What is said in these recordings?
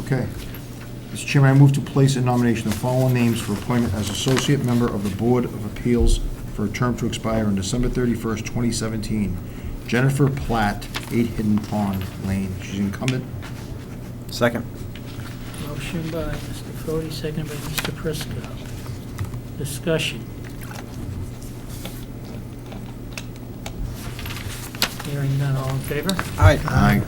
Okay. Mr. Chairman, I move to place in nomination the following names for appointment as associate member of the Board of Appeals for a term to expire on December 31st, 2017. Jennifer Platt, 8 Hidden Pond Lane. She's incumbent. Second. Motion by Mr. Fode, seconded by Mr. Prisco. Discussion. Hearing none, all in favor? Aye. Aye.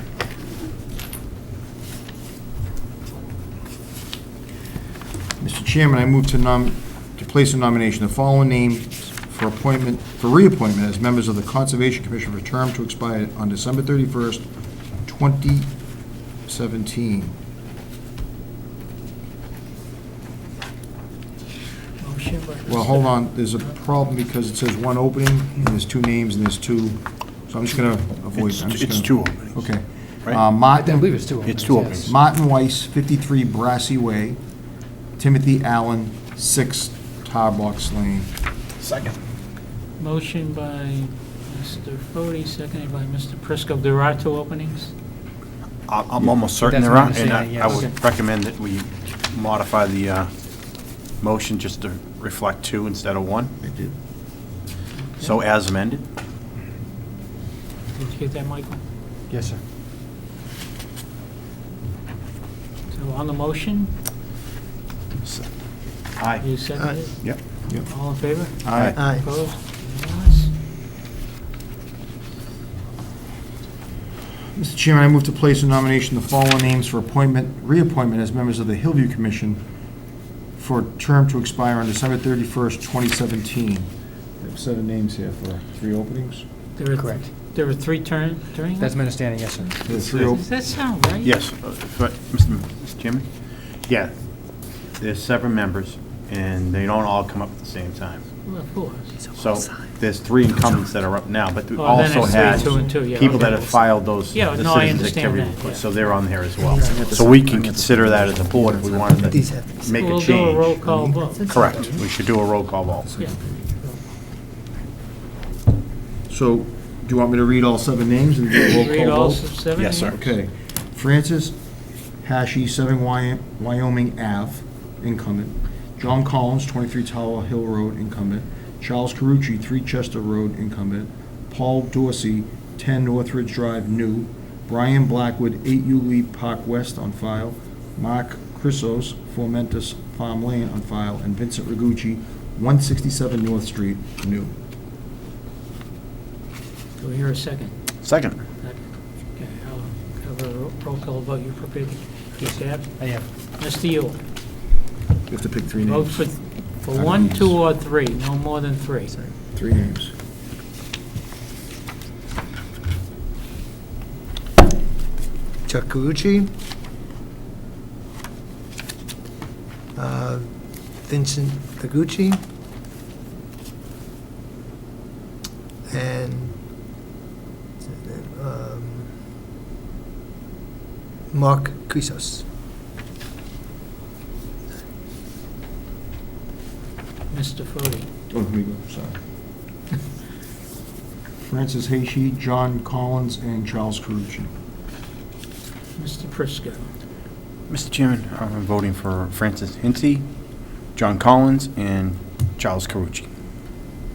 Mr. Chairman, I move to nom, to place in nomination the following names for appointment, for reappointment as members of the Conservation Commission for a term to expire on December 31st, 2017. Motion by Mr. Well, hold on, there's a problem because it says one opening, and there's two names, and there's two, so I'm just gonna avoid, It's- I'm just gonna... it's two openings. Okay. Right? Uh, I believe Martin, it's two openings. It's two yes. openings. Martin Weiss, 53 Brassy Way, Timothy Allen, 6 Tarbox Lane. Second. Motion by Mr. Fode, seconded by Mr. Prisco. There are two openings? I- I'm almost certain That's there what are, I'm and saying, I- I yes. would recommend that we modify the uh, motion just to reflect two instead of one, I did. so as amended. Did you get that, Michael? Yes, sir. So on the motion, S- Aye. you seconded? Yep. Yep. All in favor? Aye. Aye. Opposed? Unanimous? Mr. Chairman, I move to place in nomination the following names for appointment, reappointment as members of the Hillview Commission for a term to expire on December 31st, 2017. They have seven names here for three openings. There are, Correct. there are three turn, turn? That's my understanding, yes, sir. There are three op- Does that sound right? Yes, uh, but, Mr. M- Mr. Chairman? Yeah, there's seven members, and they don't all come up at the same time. Well, Of course. So there's three incumbents that are up now, but we Oh, then also it's three, had two, and two, yeah, people okay. that have filed those Yeah, the no, I citizens' understand activity that, reports, yeah. so they're on there as well. Right. So we can consider that as a board if we wanted These to have to be make a We'll do a roll change. call vote. Correct, we should do a roll call vote. Yeah. So, do you want me to read all seven names and do a roll call vote? Read all s- seven? Yes, sir. Okay. Francis Hashi, 7 Wy- Wyoming Ave, incumbent. John Collins, 23 Tower Hill Road, incumbent. Charles Carucci, 3 Chester Road, incumbent. Paul Dorsey, 10 Northridge Drive, new. Brian Blackwood, 8 Uli Park West, on file. Mark Chrysos, Formentus Farm Lane, on file. And Vincent Ragucci, 167 North Street, new. Do we hear a second? Second. Okay, I'll have a ro- roll call vote. You prepared to get that? I am. Mr. Yule, You have to pick three vote names. for, for one, two, or three, no more than three. Three names. Chuck Kikuchi, uh, Vincent Taguchi, and um, Mark Kuisos. Mr. Fode, Oh, here we go, sorry. Francis Hayshe, John Collins, and Charles Carucci. Mr. Prisco, Mr. Chairman, I'm voting for Francis Hinty, John Collins, and Charles Carucci.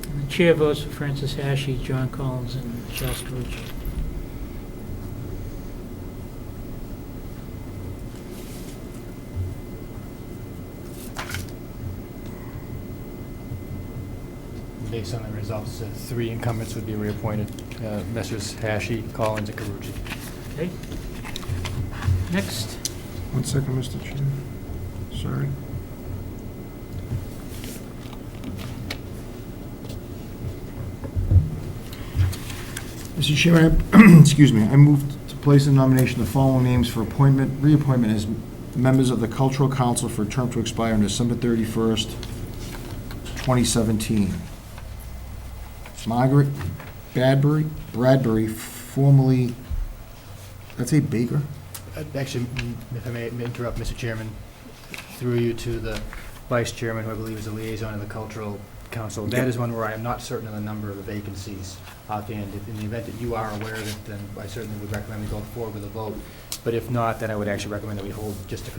and the chair votes for Francis Hashi, John Collins, and Charles Carucci. Based on the results, uh, three incumbents would be reappointed, uh, Messrs. Hashi, Collins, and Karucci. Okay? Next, One second, Mr. Chair. Sorry. Mr. Chairman, I- excuse me, I move to place in nomination the following names for appointment, reappointment as members of the Cultural Council for a term to expire on December 31st, 2017. Margaret Badbury, Bradbury, formerly, that's a Baker? Uh, Actually, m- if I may may interrupt, Mr. Chairman, through you to the Vice Chairman, who I believe is the liaison of the Cultural Council. That is one where I am not certain of the number of the vacancies offhand. If- In the event that you are aware of it, then I certainly would recommend we go forward with a vote. But if not, then I would actually recommend that we hold just a